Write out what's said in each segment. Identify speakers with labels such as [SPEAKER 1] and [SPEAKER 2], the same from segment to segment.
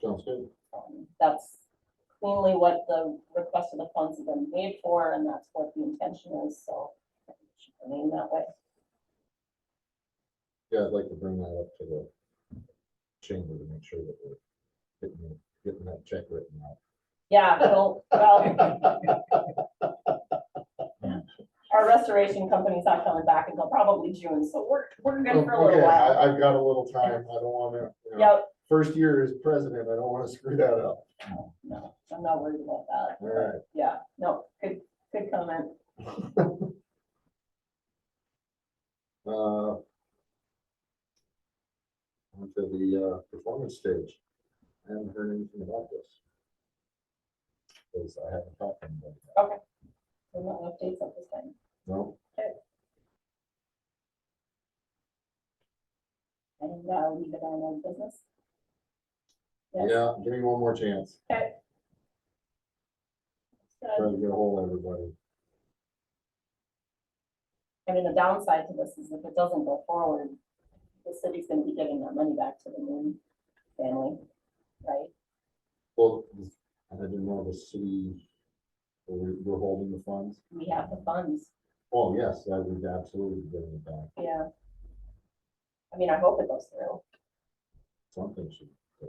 [SPEAKER 1] generally Um, what the request of the funds have been made for, and that's what the intention is, so. it should Remain that way.
[SPEAKER 2] Yeah, I'd like to bring that up to the chamber to make sure that we're getting, getting that check written out.
[SPEAKER 1] Yeah, so, well. Our restoration company's not coming back until probably June, so we're, we're good for a little
[SPEAKER 2] Okay,
[SPEAKER 1] while.
[SPEAKER 2] I, I've got a little time. I don't wanna, you know,
[SPEAKER 1] Yep,
[SPEAKER 2] first year as president, I don't wanna screw that up.
[SPEAKER 1] no, I'm not worried about that.
[SPEAKER 2] All right,
[SPEAKER 1] Yeah, no, good, good comment.
[SPEAKER 2] uh. Onto the, uh, performance stage. I haven't heard anything about this. Cause I haven't talked to anybody.
[SPEAKER 1] We're not gonna update at this time.
[SPEAKER 2] No,
[SPEAKER 1] And uh, leave it on our business. Yes.
[SPEAKER 2] yeah, give me one more chance.
[SPEAKER 1] Good.
[SPEAKER 2] Try to get a hold of everybody.
[SPEAKER 1] I mean, the downside to this is if it doesn't go forward, the city's gonna be giving that money back to the Moon family, right?
[SPEAKER 2] Well, I didn't know the city, we're, we're holding the funds.
[SPEAKER 1] We have the funds,
[SPEAKER 2] Oh, yes, I would absolutely give it back.
[SPEAKER 1] yeah. I mean, I hope it goes through.
[SPEAKER 2] Something should. go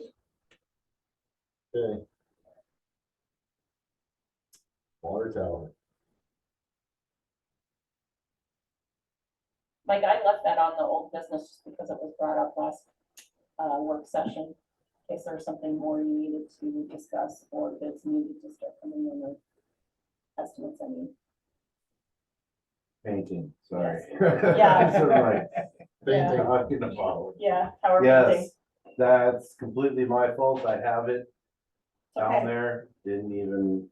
[SPEAKER 2] through. Okay. Water tower.
[SPEAKER 1] Mike, I left that on the old business just because it was brought up last uh, work session. In case there was something more you needed to discuss or bids needed to start coming in or estimates, I mean.
[SPEAKER 3] Painting, sorry.
[SPEAKER 1] Yeah.
[SPEAKER 3] Sort of like
[SPEAKER 1] Yeah.
[SPEAKER 2] Painting.
[SPEAKER 3] rock in the bottle.
[SPEAKER 1] Yeah, tower
[SPEAKER 3] Yes,
[SPEAKER 1] painting.
[SPEAKER 3] that's completely my fault. I have it down
[SPEAKER 1] Okay.
[SPEAKER 3] there. Didn't even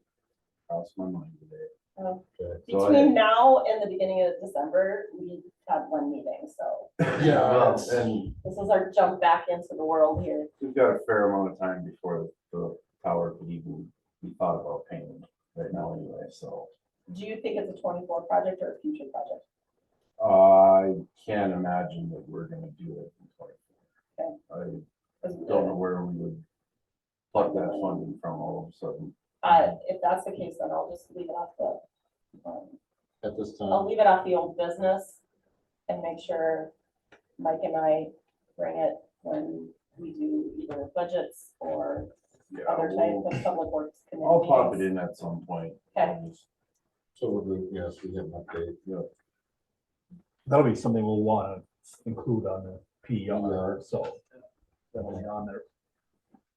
[SPEAKER 3] cross my mind today.
[SPEAKER 1] Um,
[SPEAKER 2] Okay.
[SPEAKER 3] So I-
[SPEAKER 1] Between now and the beginning of December, we have one meeting, so
[SPEAKER 2] Yeah,
[SPEAKER 3] Well,
[SPEAKER 2] it's-
[SPEAKER 3] And
[SPEAKER 1] this is our jump back into the world here.
[SPEAKER 3] we've got a fair amount of time before the tower could even be thought about painting right now anyway, so.
[SPEAKER 1] Do you think it's a twenty-four project or a future project?
[SPEAKER 3] I can't imagine that we're gonna do it in twenty-four. I
[SPEAKER 1] 'Cause we-
[SPEAKER 3] don't know where we would pluck that funding from all of a sudden.
[SPEAKER 1] Uh, if that's the case, then I'll just leave it off the, um,
[SPEAKER 2] At this
[SPEAKER 1] I'll
[SPEAKER 2] time,
[SPEAKER 1] leave it off the old business and make sure Mike and I bring it when we do either budgets or
[SPEAKER 3] Yeah,
[SPEAKER 1] other
[SPEAKER 3] we'll-
[SPEAKER 1] types of public works. committee
[SPEAKER 3] I'll pop it
[SPEAKER 1] meetings.
[SPEAKER 3] in at some point.
[SPEAKER 1] Okay.
[SPEAKER 2] so we'll do, yes, we get an update.
[SPEAKER 4] That'll be something we'll wanna include on the
[SPEAKER 2] Yeah.
[SPEAKER 4] PER, so. That'll be on there.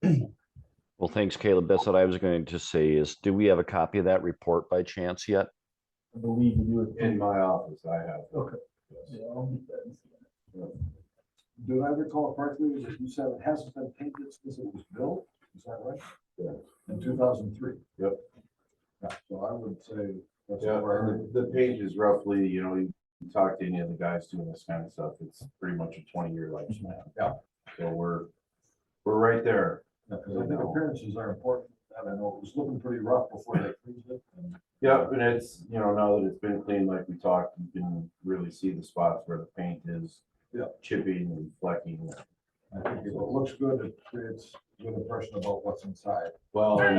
[SPEAKER 5] Well, thanks, Caleb. That's what I was going to say is, do we have a copy of that report by chance yet?
[SPEAKER 4] I believe you
[SPEAKER 3] In
[SPEAKER 4] would.
[SPEAKER 3] my office, I have.
[SPEAKER 4] Okay.
[SPEAKER 3] Yes.
[SPEAKER 4] Yeah, I'll get that.
[SPEAKER 6] Do I recall correctly, that you said it hasn't been painted since it was built, is that right?
[SPEAKER 3] Yeah.
[SPEAKER 6] In two thousand three?
[SPEAKER 3] Yep.
[SPEAKER 6] So I would say. that's
[SPEAKER 3] Yeah,
[SPEAKER 6] where I
[SPEAKER 3] and
[SPEAKER 6] would-
[SPEAKER 3] the, the page is roughly, you know, you talk to any of the guys doing this kind of stuff, it's pretty much a twenty-year lifespan.
[SPEAKER 6] Yeah.
[SPEAKER 3] So we're, we're right there.
[SPEAKER 6] Yeah, 'cause I think appearances are important, I don't know, it was looking pretty rough before they cleaned it. and
[SPEAKER 3] Yeah, and it's, you know, now that it's been cleaned like we talked, you can really see the spots where the paint is
[SPEAKER 6] Yeah.
[SPEAKER 3] chipping and flecking.
[SPEAKER 6] I think If it looks good, it creates a good impression about what's inside.
[SPEAKER 3] Well, and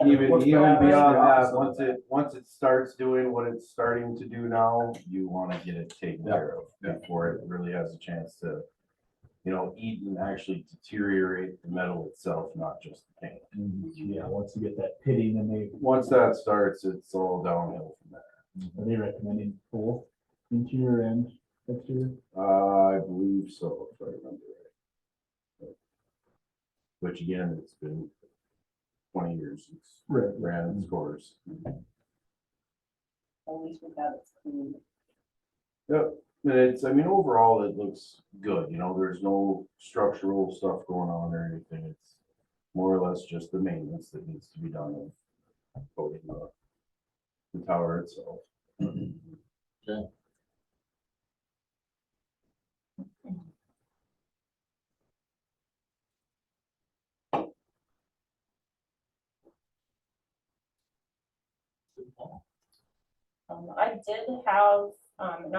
[SPEAKER 6] And if it
[SPEAKER 3] Even,
[SPEAKER 6] looks
[SPEAKER 3] even
[SPEAKER 6] bad, it's the
[SPEAKER 3] beyond
[SPEAKER 6] opposite of
[SPEAKER 3] that, once it, once it starts doing what it's starting to do now, you wanna get it taken
[SPEAKER 6] Yeah,
[SPEAKER 3] care
[SPEAKER 6] yeah.
[SPEAKER 3] of before it really has a chance to, you know, eat and actually deteriorate the metal itself, not just the paint.
[SPEAKER 4] And, Yeah, once you get that pitting and they,
[SPEAKER 3] Once that starts, it's all downhill from there.
[SPEAKER 4] are they recommending both interior and exterior?
[SPEAKER 3] Uh, I believe so, if I remember right. Which again, it's been twenty years, it's
[SPEAKER 4] Right.
[SPEAKER 3] ran its course.
[SPEAKER 1] At least we have it clean.
[SPEAKER 3] Yep, and it's, I mean, overall, it looks good, you know, there's no structural stuff going on or anything, it's more or less just the maintenance that needs to be done of coating the, the tower itself.
[SPEAKER 1] Um, I did have, um, an